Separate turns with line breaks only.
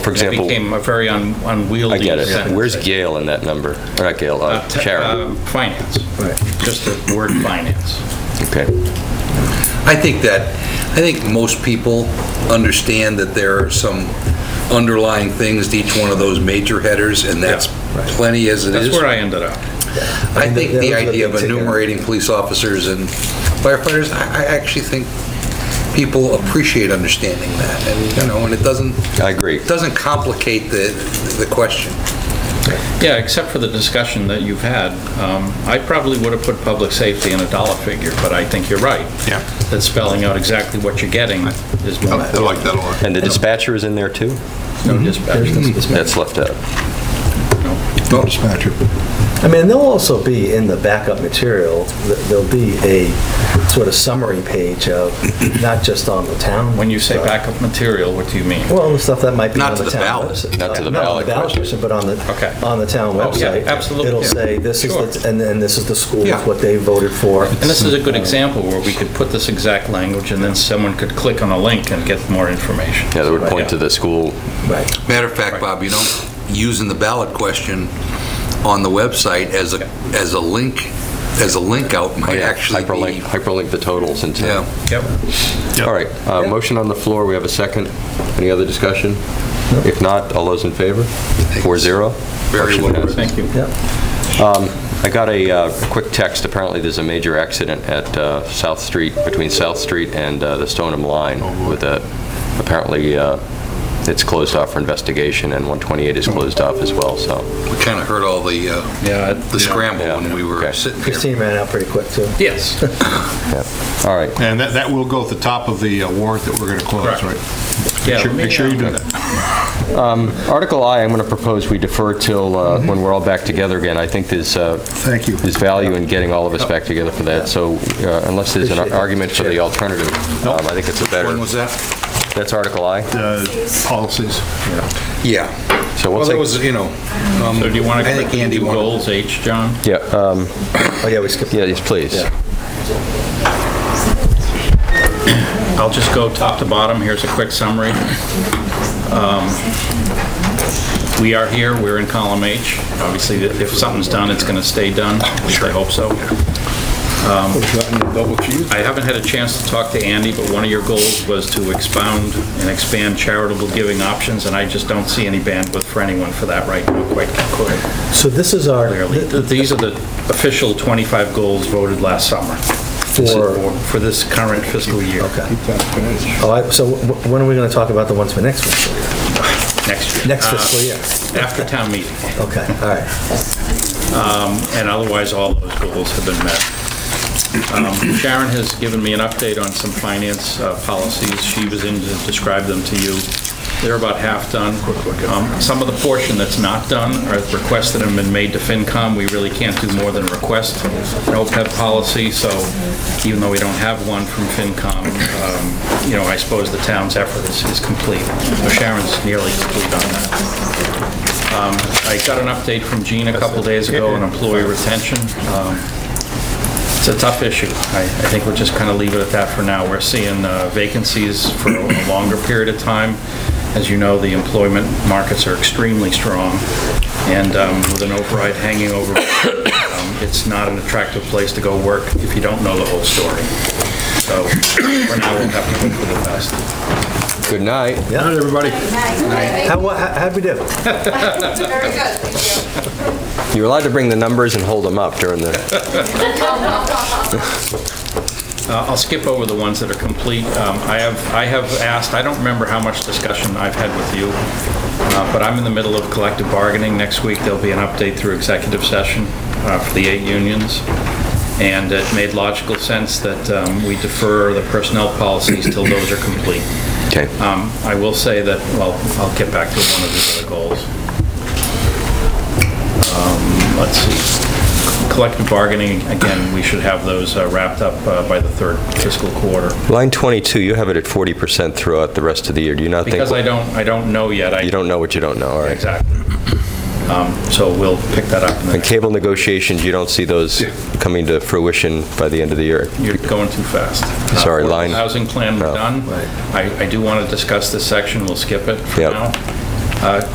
For
It
example,
became a very un-
I
unwieldy
get it.
sentence.
Where's Gail in that number? Or not Gail, uh,
Uh, te- uh,
Sharon.
Finance. Just the word finance.
Okay.
I think that, I think most people understand that there are some underlying things to each one of those major headers, and that's plenty as it is.
That's where I ended up.
I think
Those
the
are the
idea of
big ticket.
enumerating police officers and firefighters, I I actually think people appreciate understanding that, and, you know, and it doesn't...
I agree.
it Doesn't complicate the, the question.
Yeah, except for the discussion that you've had, um, I probably would have put public safety in a dollar figure, but I think you're right.
Yeah.
That spelling out exactly what you're getting is more.
Oh, I like that a lot.
And the dispatcher is in there too?
No dispatch.
That's left out.
Dispatcher.
I mean, there'll also be in the backup material, th- there'll be a sort of summary page of, not just on the town.
When you say
stuff.
backup material, what do you mean?
Well, the stuff that might be
Not
on
to
the
the
town.
ballot.
website.
Not to the
Not on the
ballot
ballot
question.
question, but on
Okay.
the, on the town
Oh, yeah,
website.
absolutely,
It'll
yeah.
say, this is,
Sure.
the- and then this is the schools,
Yeah.
what they voted for.
And this is a good example where we could put this exact language, and then someone could click on a link and get more information.
Yeah, that would point to the school.
Right.
Matter of fact, Bob, you know, using the ballot question on the website as a, as a link, as a link out might
Oh, Yeah,
actually
Hyperlink,
be...
hyperlink the totals into.
Yeah.
Yep.
All right, uh, motion on the floor, we have a second. Any other discussion? If not, all those in favor? Four zero?
Very
Motion
well.
passes.
Thank you.
Yep.
Um, I got a uh, quick text, apparently there's a major accident at uh, South Street, between South Street and uh, the Stoneham Line with a, apparently uh, it's closed off for investigation and 128 is closed off as well, so.
We kind of heard all the, uh,
Yeah, it-
the scramble
Yeah.
when we were
Okay.
sitting there.
Christine ran out pretty quick, too.
Yes.
All right,
And that, that will go at the top of the uh, warrant that we're going to close,
Correct.
right?
Yeah,
Make sure-
let me,
Make sure you
uh,
do that.
Article I, I'm going to propose we defer till uh, when we're all back together again. I think there's, uh,
Thank you.
there's value in getting all of us back together for that, so uh, unless there's an
Appreciate it.
argument for the alternative, um, I think it's a
When
better,
was that?
that's Article I.
Uh, Policies.
Yeah.
So
Well,
we'll
there
take,
was, you know, um,
so do you want
I
to
think
click
Andy
into
wanted-
goals H, John?
yeah, um,
Oh, yeah, we skipped.
yeah, yes, please.
Yeah.
I'll just go top to bottom. Here's a quick summary. Um, We are here, we're in column H. Obviously, if something's done, it's going to stay done. At least I hope so. Um, I haven't had a chance to talk to Andy, but one of your goals was to expound and expand charitable giving options, and I just don't see any bandwidth for anyone for that right now, quite
So this is our,
clearly. Th- These are the official 25 goals voted last summer
for,
for this current fiscal year,
okay. All right, so wh- when are we going to talk about the ones for next fiscal year?
next year.
Next
Uh,
fiscal year?
After town meeting.
Okay, all right.
and otherwise, all those goals have been met. Um, Sharon has given me an update on some finance uh, policies. She was in to describe them to you. They're about half done. Um, Some of the portion that's not done are requests that have been made to FinCom. We really can't do more than request an OPEB policy, so even though we don't have one from FinCom, um, you know, I suppose the town's effort is is complete. So Sharon's nearly complete on that. Um, I got an update from Gene a couple days ago on employee retention. Um, It's a tough issue. I I think we'll just kind of leave it at that for now. We're seeing uh, vacancies for a longer period of time. As you know, the employment markets are extremely strong, and um, with an override hanging over, um, it's not an attractive place to go work if you don't know the whole story. So for now, we'll have to hope for the best.
Good night.
Not everybody.
How, wha- how- how'd we do?
Very good, thank you.
You're allowed to bring the numbers and hold them up during the
Uh, I'll skip over the ones that are complete. Um, I have, I have asked, I don't remember how much discussion I've had with you, uh, but I'm in the middle of collective bargaining. Next week, there'll be an update through executive session uh, for the eight unions, and it made logical sense that um, we defer the personnel policies till those are complete.
Okay.
Um, I will say that, well, I'll get back to one of these other goals. Um, Let's see, collective bargaining, again, we should have those uh, wrapped up uh, by the third fiscal quarter.
Line 22, you have it at 40% throughout the rest of the year. Do you not think?
Because I don't, I don't know yet, I...
You don't know what you don't know, all right.
Exactly. Um, So we'll pick that up, in the
And
next
cable negotiations, you don't see those coming to fruition by the end of the year?
you're going too fast.
Sorry,
Uh,
line-
Housing plan, we're
No.
done. I I do want to discuss this section, we'll skip it for
Yep.
now. Uh,